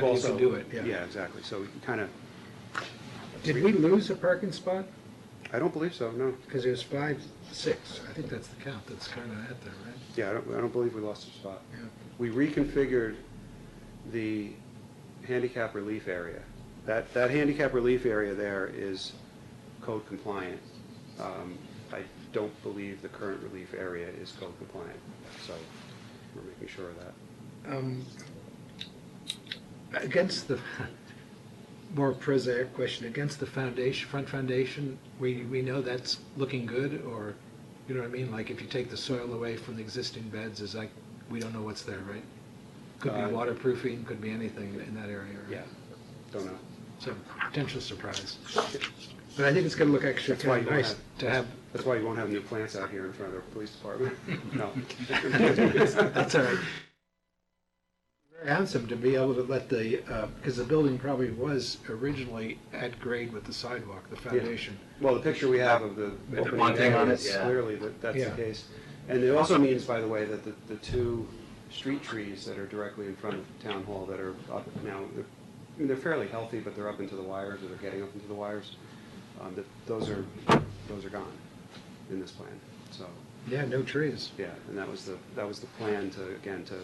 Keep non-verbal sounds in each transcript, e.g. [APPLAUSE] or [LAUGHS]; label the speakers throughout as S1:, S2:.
S1: you
S2: also.
S1: could do it, yeah.
S2: Yeah, exactly, so we can kind of,
S1: Did we lose a parking spot?
S2: I don't believe so, no.
S1: Because there's five, six, I think that's the count, that's kind of at there, right?
S2: Yeah, I don't, I don't believe we lost a spot.
S1: Yeah.
S2: We reconfigured the handicap relief area. That, that handicap relief area there is code compliant. Um, I don't believe the current relief area is code compliant, so we're making sure of that.
S1: Um, Against the, more prosaic question, against the foundation, front foundation, we, we know that's looking good, or, you know what I mean? Like, if you take the soil away from the existing beds, is like, we don't know what's there, right? Could
S2: Uh,
S1: be waterproofing, could be anything in that area, right?
S2: Yeah, don't know.
S1: So, potential surprise. But I think it's gonna look actually
S2: That's why
S1: kind of
S2: you don't
S1: nice
S2: have-
S1: to have,
S2: That's why you won't have new plants out here in front of the police
S3: [LAUGHS]
S2: department. No.
S1: that's all right. Very handsome to be able to let the, uh, because the building probably was originally at grade with the sidewalk, the foundation.
S2: [LAUGHS] Well, the picture we have of the.
S3: With the bunting on it,
S2: It's
S3: yeah.
S2: Clearly, that, that's
S1: Yeah.
S2: the case. And it also means, by the way, that the, the two street trees that are directly in front of Town Hall that are up now, they're, I mean, they're fairly healthy, but they're up into the wires, or they're getting up into the wires, um, that, those are, those are gone in this plan, so,
S1: Yeah, no trees.
S2: yeah, and that was the, that was the plan to, again, to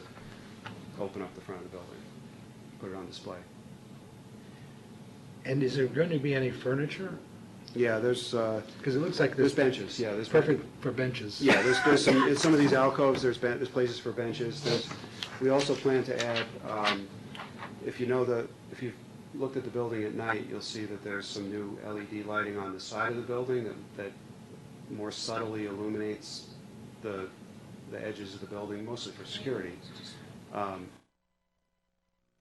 S2: open up the front of the building, put it on display.
S1: And is there going to be any furniture?
S2: Yeah, there's, uh,
S1: Because it looks like
S2: there's
S1: there's.
S2: benches, yeah, there's.
S1: Perfect for benches.
S2: Yeah, there's, there's some, in some of these alcoves, there's ben, there's places for benches, there's, we also plan to add, um, if you know the, if you've looked at the building at night, you'll see that there's some new LED lighting on the side of the building that, that more subtly illuminates the, the edges of the building, mostly for security. Um,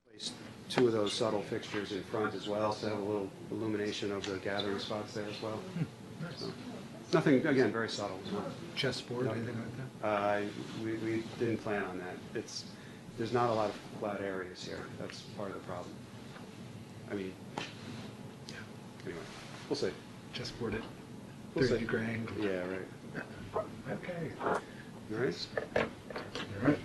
S2: Place two of those subtle fixtures in front as well, so have a little illumination of the gathering spots there as well. So, Nothing, again, very subtle, not-
S1: Chessboard, anything like that?
S2: uh, We, we didn't plan on that. It's, there's not a lot of flat areas here. That's part of the problem. I mean, anyway, we'll see.
S1: Chessboard at
S2: We'll see.
S1: 30 degree angle.
S2: Yeah, right.
S1: Okay.
S2: All right?
S1: All right.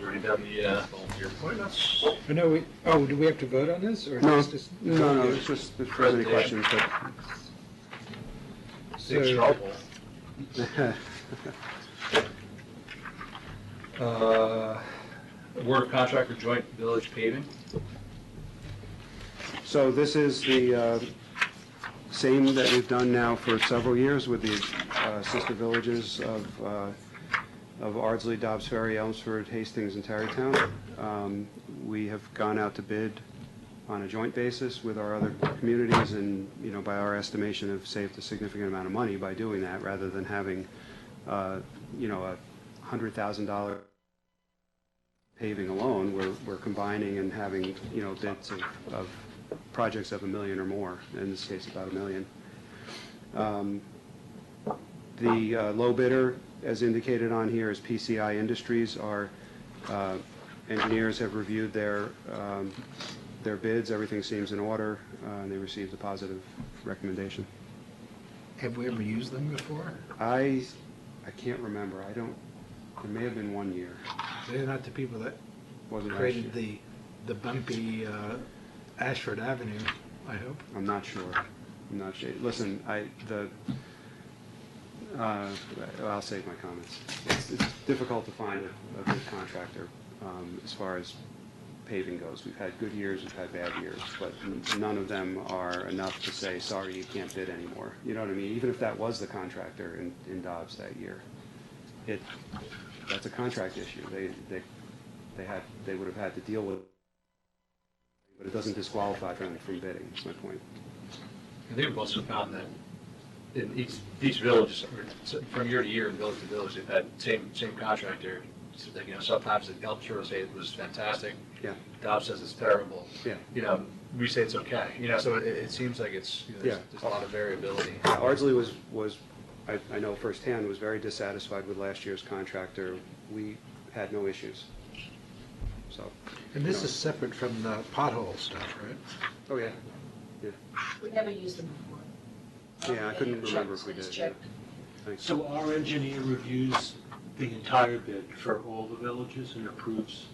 S3: You already done the uh, volunteer appointments.
S1: I know we, oh, do we have to vote on this or?
S2: No,
S1: is this just-
S2: no, no, it's just, there's so many questions,
S3: Six
S1: So-
S3: trouble.
S2: but. [LAUGHS]
S3: Uh, Award of contract for joint village paving.
S2: So this is the uh, same that we've done now for several years with the uh, sister villages of, uh, of Ardsley, Dobbs Ferry, Elmsford, Hastings, and Tarrytown. Um, We have gone out to bid on a joint basis with our other communities and, you know, by our estimation have saved a significant amount of money by doing that rather than having, uh, you know, a hundred thousand dollar paving alone, we're, we're combining and having, you know, bids of, of projects of a million or more, in this case about a million. Um, The uh, low bidder, as indicated on here, is PCI Industries. Our uh, engineers have reviewed their, um, their bids, everything seems in order, uh, and they received a positive recommendation.
S1: Have we ever used them before?
S2: I, I can't remember, I don't, there may have been one year,
S1: They're not the people that
S2: wasn't last year.
S1: created the, the bumpy uh, Ashford Avenue, I hope.
S2: I'm not sure. I'm not sure. Listen, I, the, uh, I'll save my comments. It's, it's difficult to find a, a good contractor, um, as far as paving goes. We've had good years, we've had bad years, but n- none of them are enough to say, sorry, you can't bid anymore. You know what I mean? Even if that was the contractor in, in Dobbs that year, it, that's a contract issue. They, they, they had, they would have had to deal with it, but it doesn't disqualify them from bidding, is my point.
S3: I think we've also found that in each, each village, or from year to year, village to village, they've had same, same contractor. So that, You know, sometimes the Elm Shore say it was fantastic.
S2: Yeah.
S3: Dobbs says it's terrible.
S2: Yeah.
S3: You know, we say it's okay, you know, so it, it seems like it's, you know, there's
S2: Yeah.
S3: there's a lot of variability.
S2: Yeah, Ardsley was, was, I, I know firsthand, was very dissatisfied with last year's contractor. We had no issues. So,
S1: And this
S2: No.
S1: is separate from the pothole stuff, right?
S2: oh, yeah.
S4: We never used them before.
S2: Yeah, I couldn't remember if we
S4: Check,
S2: did.
S4: check.
S2: Thanks.
S5: So our engineer reviews the entire bid for all the villages and approves